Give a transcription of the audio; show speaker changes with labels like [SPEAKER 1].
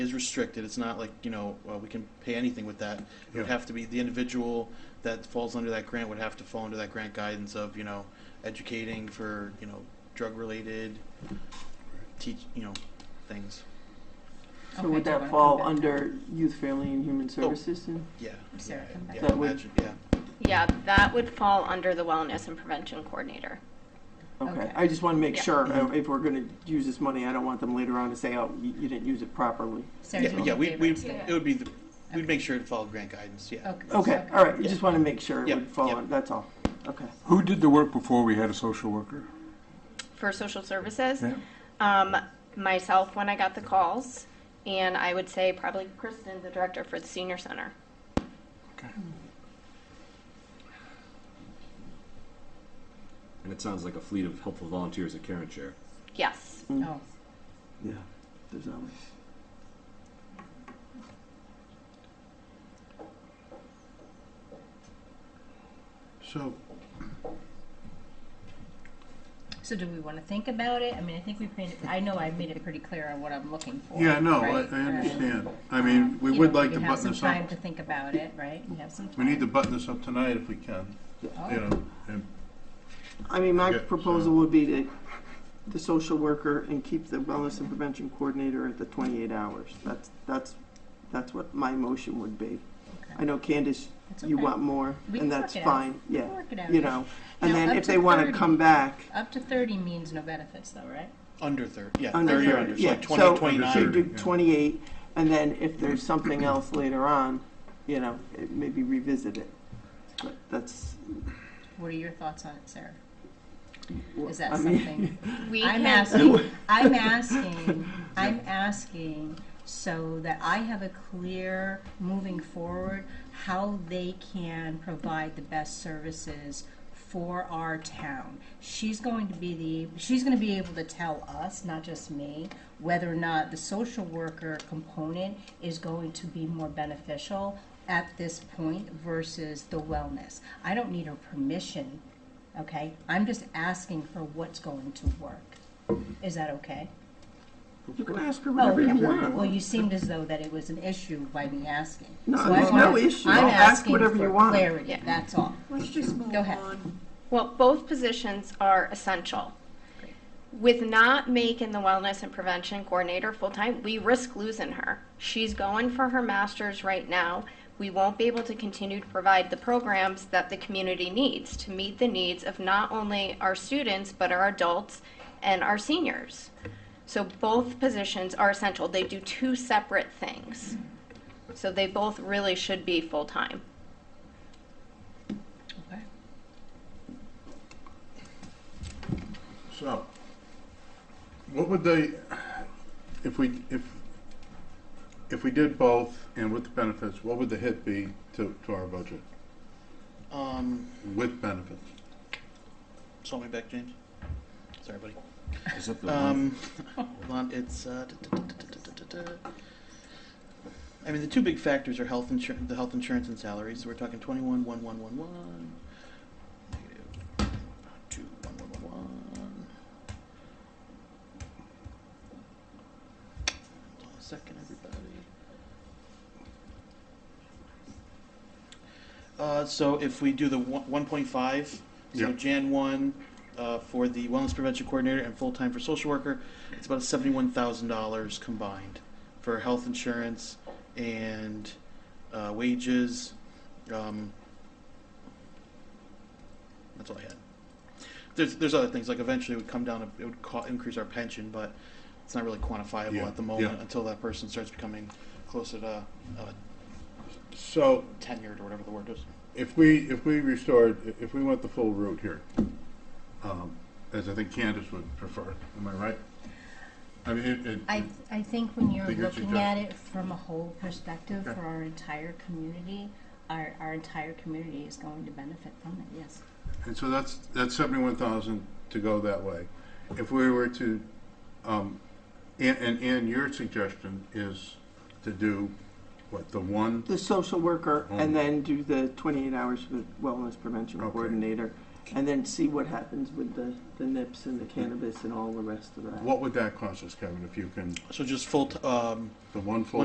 [SPEAKER 1] is restricted. It's not like, you know, uh, we can pay anything with that. It would
[SPEAKER 2] Yeah.
[SPEAKER 1] have to be, the individual that falls under that grant would have to fall under that grant guidance of, you know, educating for, you know, drug-related, teach, you know, things.
[SPEAKER 3] So
[SPEAKER 4] Okay,
[SPEAKER 3] would
[SPEAKER 4] Joe,
[SPEAKER 3] that
[SPEAKER 4] wanna come
[SPEAKER 3] fall
[SPEAKER 4] back?
[SPEAKER 3] under youth, family, and human
[SPEAKER 1] Oh.
[SPEAKER 3] services then?
[SPEAKER 1] Yeah.
[SPEAKER 4] Sarah, come back.
[SPEAKER 1] Yeah,
[SPEAKER 3] That would-
[SPEAKER 1] imagine- yeah.
[SPEAKER 5] Yeah, that would fall under the wellness and prevention coordinator.
[SPEAKER 3] Okay,
[SPEAKER 4] Okay.
[SPEAKER 3] I just want to make
[SPEAKER 5] Yeah.
[SPEAKER 3] sure,
[SPEAKER 1] Mm-hmm.
[SPEAKER 3] uh, if we're gonna use this money, I don't want them later on to say, oh, you you didn't use it properly.
[SPEAKER 4] Sarah,
[SPEAKER 1] Yeah,
[SPEAKER 4] do you
[SPEAKER 1] yeah,
[SPEAKER 4] have
[SPEAKER 1] we,
[SPEAKER 4] a
[SPEAKER 1] we,
[SPEAKER 4] favorite?
[SPEAKER 1] it would be, the we'd make sure it followed grant guidance, yeah.
[SPEAKER 3] Okay, all right, I
[SPEAKER 1] Yeah.
[SPEAKER 3] just want to make sure it
[SPEAKER 1] Yep,
[SPEAKER 3] would fall
[SPEAKER 1] yep.
[SPEAKER 3] on, that's all. Okay.
[SPEAKER 2] Who did the work before we had a social worker?
[SPEAKER 5] For social services,
[SPEAKER 2] Yeah.
[SPEAKER 5] um, myself when I got the calls, and I would say probably Kristen, the director for the senior center.
[SPEAKER 6] And it sounds like a fleet of helpful volunteers at Karen Chair.
[SPEAKER 5] Yes.
[SPEAKER 4] Oh,
[SPEAKER 3] Yeah, there's always.
[SPEAKER 7] So,
[SPEAKER 4] so do we want to think about it? I mean, I think we've made it, I know I've made it pretty clear on what I'm looking for.
[SPEAKER 7] yeah, no, I,
[SPEAKER 4] right?
[SPEAKER 7] I
[SPEAKER 4] And,
[SPEAKER 7] understand. I mean, we
[SPEAKER 4] you
[SPEAKER 7] would
[SPEAKER 4] know,
[SPEAKER 7] like to
[SPEAKER 4] We have
[SPEAKER 7] button
[SPEAKER 4] some
[SPEAKER 7] this
[SPEAKER 4] time
[SPEAKER 7] up.
[SPEAKER 4] to think about it, right? We have some time.
[SPEAKER 7] We need to button this up tonight if we can,
[SPEAKER 4] Oh,
[SPEAKER 7] you know, and
[SPEAKER 3] I mean, my
[SPEAKER 7] Okay, so-
[SPEAKER 3] proposal would be to, the social worker and keep the wellness and prevention coordinator at the twenty-eight hours. That's, that's, that's what my motion would be. I
[SPEAKER 4] Oh, okay.
[SPEAKER 3] know Candace,
[SPEAKER 4] That's
[SPEAKER 3] you
[SPEAKER 4] okay.
[SPEAKER 3] want more,
[SPEAKER 4] We can
[SPEAKER 3] and
[SPEAKER 4] work
[SPEAKER 3] that's
[SPEAKER 4] it out.
[SPEAKER 3] fine, yeah,
[SPEAKER 4] We'll work it out.
[SPEAKER 3] you know. And
[SPEAKER 4] Now,
[SPEAKER 3] then
[SPEAKER 4] up
[SPEAKER 3] if
[SPEAKER 4] to
[SPEAKER 3] they wanna
[SPEAKER 4] 30.
[SPEAKER 3] come back,
[SPEAKER 4] Up to thirty means no benefits though, right?
[SPEAKER 1] Under thirty, yeah,
[SPEAKER 3] Under
[SPEAKER 1] thirty or
[SPEAKER 3] 30,
[SPEAKER 1] under, so
[SPEAKER 3] yeah.
[SPEAKER 1] like
[SPEAKER 3] So-
[SPEAKER 1] twenty,
[SPEAKER 3] you
[SPEAKER 1] twenty-nine.
[SPEAKER 3] do
[SPEAKER 7] yeah.
[SPEAKER 3] twenty-eight, and then if there's something else later on, you know, it- maybe revisit it. But that's.
[SPEAKER 4] What are your thoughts on it, Sarah? Is
[SPEAKER 3] I
[SPEAKER 4] that
[SPEAKER 3] mean-
[SPEAKER 4] something?
[SPEAKER 5] We
[SPEAKER 4] I'm
[SPEAKER 5] can-
[SPEAKER 4] asking, I'm asking, I'm asking so that I have a clear, moving forward, how they can provide the best services for our town. She's going to be the, she's gonna be able to tell us, not just me, whether or not the social worker component is going to be more beneficial at this point versus the wellness. I don't need her permission okay? I'm just asking her what's going to work. Is that okay?
[SPEAKER 3] You can ask her
[SPEAKER 4] Oh,
[SPEAKER 3] whatever you
[SPEAKER 4] okay.
[SPEAKER 3] want.
[SPEAKER 4] Well, you seemed as though that it was an issue by me asking.
[SPEAKER 3] No,
[SPEAKER 4] So I
[SPEAKER 3] there's no
[SPEAKER 4] wanna-
[SPEAKER 3] issue.
[SPEAKER 4] I'm
[SPEAKER 3] Ask
[SPEAKER 4] asking
[SPEAKER 3] whatever you
[SPEAKER 4] for
[SPEAKER 3] want.
[SPEAKER 4] clarity,
[SPEAKER 5] Yeah.
[SPEAKER 4] that's all.
[SPEAKER 8] Let's just move
[SPEAKER 4] Go ahead.
[SPEAKER 8] on.
[SPEAKER 5] Well, both positions are essential.
[SPEAKER 4] Great.
[SPEAKER 5] With not making the wellness and prevention coordinator full time, we risk losing her. She's going for her master's right now. We won't be able to continue to provide the programs that the community needs to meet the needs of not only our students, but our adults and our seniors. So both positions are essential. They do two separate things. So they both really should be full time.
[SPEAKER 4] Okay.
[SPEAKER 7] so. What would they, if we, if, if we did both and with the benefits, what would the hit be to, to our budget
[SPEAKER 1] Um,
[SPEAKER 7] with benefits?
[SPEAKER 1] so me back, James. Sorry, buddy.
[SPEAKER 6] Is that the one?
[SPEAKER 1] Um, hold on, it's, uh, duh, duh, duh, duh, duh, duh, duh, duh, duh. I mean, the two big factors are health insurance, the health insurance and salaries, so we're talking twenty-one, one, one, one, one. Negative, two, one, one, one, one. Hold on a second, everybody. Uh, so if we do the one, one point five, so
[SPEAKER 7] Yeah.
[SPEAKER 1] Jan one, uh, for the wellness prevention coordinator and full-time for social worker, it's about seventy-one thousand dollars combined for health insurance and uh, wages. Um, that's all I had. There's there's other things like eventually it would come down. It would co- increase our pension, but it's not really quantifiable
[SPEAKER 7] Yeah,
[SPEAKER 1] at the moment
[SPEAKER 7] yeah.
[SPEAKER 1] until that person starts becoming closer to uh,
[SPEAKER 7] So
[SPEAKER 1] tenured or whatever the word is.
[SPEAKER 7] if we, if we restored, if we went the full route here, um, as I think Candace would prefer, am I right? I mean, it, it.
[SPEAKER 4] I, I think when you're
[SPEAKER 7] Think you're
[SPEAKER 4] looking at
[SPEAKER 7] suggesting-
[SPEAKER 4] it from a whole perspective
[SPEAKER 7] Okay.
[SPEAKER 4] for our entire community, our, our entire community is going to benefit from it, yes.
[SPEAKER 7] And so that's, that's seventy-one thousand to go that way. If we were to, um, and, and, and your suggestion is to do, what, the one?
[SPEAKER 3] The social worker, and
[SPEAKER 7] Mm.
[SPEAKER 3] then do the twenty-eight hours for the wellness prevention
[SPEAKER 7] Okay.
[SPEAKER 3] coordinator. And then see what happens with the, the nips and the cannabis and all the rest of that.
[SPEAKER 7] What would that cost us, Kevin, if you can,
[SPEAKER 1] So just full, t- um,
[SPEAKER 7] the one full